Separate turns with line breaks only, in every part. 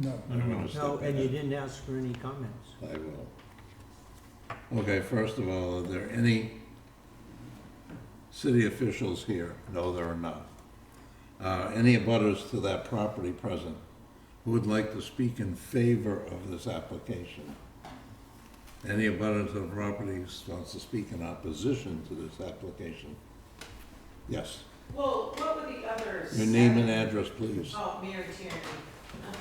No.
I don't want to
No,
step
and you
in.
didn't ask for any comments.
I will. Okay, first of all, are there any city officials here? No, there are not. Uh, Any abutters to that property present who would like to speak in favor of this application? Any abutters to the property who wants to speak in opposition to this application? Yes,
Well, what were the others?
your name and address, please.
Oh, Mary Tierney. Oh,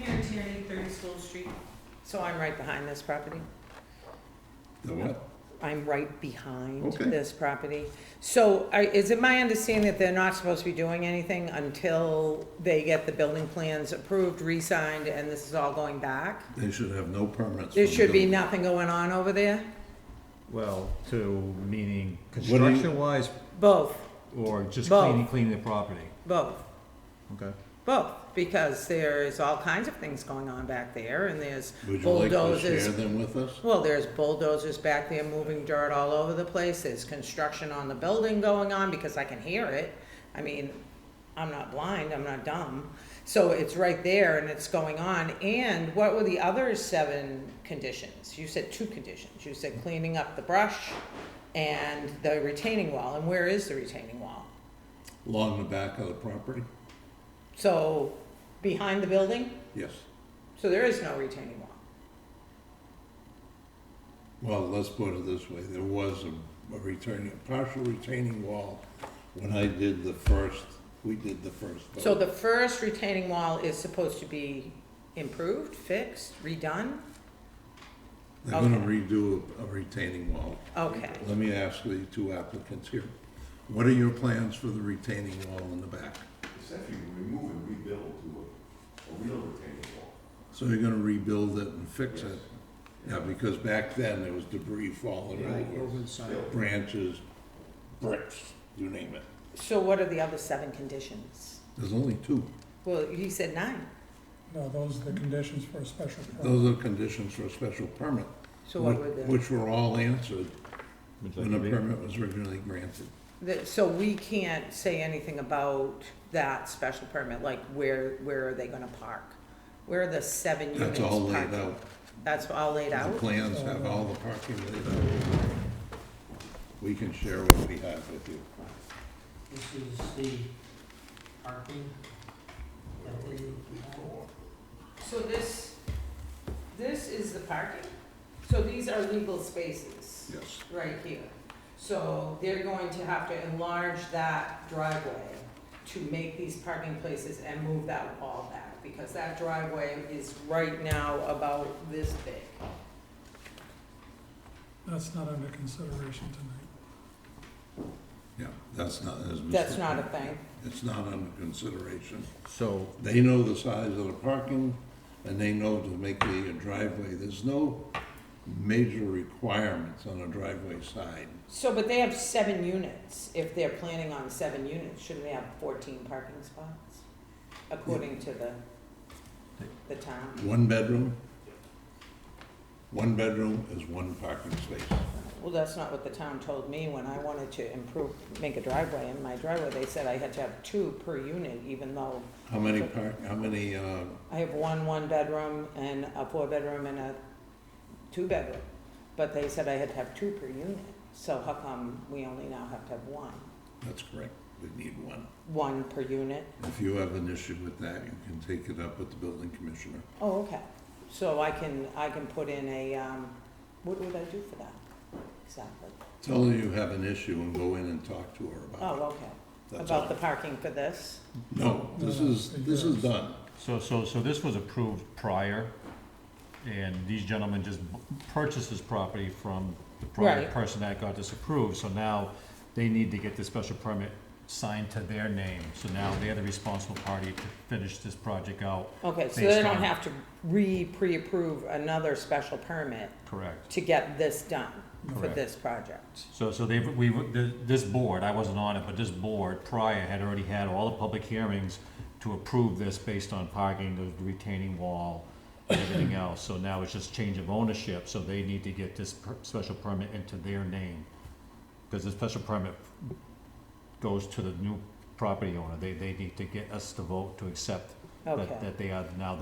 jeez. Mary Tierney, thirty School Street. So I'm right behind this property?
The what?
I'm right behind
Okay.
this property. So I- is it my understanding that they're not supposed to be doing anything until they get the building plans approved, re-signed, and this is all going back?
They should have no permits.
There
from
should be
building-
nothing going on over there?
Well, to meaning
What do you-
construction wise
Both,
or just
Both.
cleaning, cleaning the property?
both.
Okay.
Both, because there's all kinds of things going on back there, and there's
Would you like to share
bulldozers.
them with us?
Well, there's bulldozers back there moving dirt all over the place, there's construction on the building going on, because I can hear it. I mean, I'm not blind, I'm not dumb, so it's right there and it's going on, and what were the other seven conditions? You said two conditions, you said cleaning up the brush and the retaining wall, and where is the retaining wall?
Along the back of the property?
So, behind the building?
Yes.
So there is no retaining wall.
Well, let's put it this way, there was a, a returning, a partial retaining wall when I did the first, we did the first. vote.
So the first retaining wall is supposed to be improved, fixed, redone?
They're gonna
okay.
redo a retaining wall.
Okay.
Let me ask the two applicants here, what are your plans for the retaining wall in the back?
essentially remove and rebuild to a, a real retaining wall.
So you're gonna rebuild it and fix it? Yeah, because back then there was debris falling over, branches, bricks, you name it.
So what are the other seven conditions?
There's only two.
Well, he said nine.
No, those are the conditions for a special permit.
Those are conditions for a special permit.
So what
which-
were the,
Which were all answered
Would you
when the
like to read?
permit was originally granted.
the- so we can't say anything about that special permit, like where, where are they gonna park? Where are the seven units
That's all laid
parking?
out.
That's all laid
The
out?
plans have all the parking laid out. We can share what we have with you.
This is the parking that they
So this, this is the parking? So these are legal spaces?
Yes.
right here. So they're going to have to enlarge that driveway to make these parking places and move that wall back, because that driveway is right now about this big.
That's not under consideration tonight.
Yeah, that's not, as Mr.
That's not a thing.
It's not under consideration.
So,
They know the size of the parking, and they know to make the driveway. There's no major requirements on a driveway side.
So, but they have seven units. If they're planning on seven units, shouldn't they have fourteen parking spots? According to the, the town.
One bedroom, one bedroom is one parking space.
Well, that's not what the town told me when I wanted to improve, make a driveway in my driveway. They said I had to have two per unit, even though
How many park, how many, uh,
I have one one-bedroom and a four-bedroom and a two-bedroom, but they said I had to have two per unit, so how come we only now have to have one?
that's correct, we need one.
One per unit?
If you have an issue with that, you can take it up with the building commissioner.
Oh, okay, so I can, I can put in a, um, what would I do for that? Exactly.
Tell her you have an issue and go in and talk to her
Oh,
about it.
okay,
That's
about
all.
the parking for this?
No, this is, this is done.
so, so, so this was approved prior, and these gentlemen just b- purchased this property from the prior
Right.
person that got disapproved, so now they need to get the special permit signed to their name, so now they're the responsible party to finish this project out,
Okay, so they
Based
don't
on-
have to re-pre-approve another special permit
correct?
to get this done for
Correct.
this project?
So, so they've, we, th- this board, I wasn't on it, but this board prior had already had all the public hearings to approve this based on parking, the retaining wall, and everything else. So now it's just change of ownership, so they need to get this per- special permit into their name. Because the special permit goes to the new property owner. They, they need to get us to vote to accept
Okay.
that, that they are now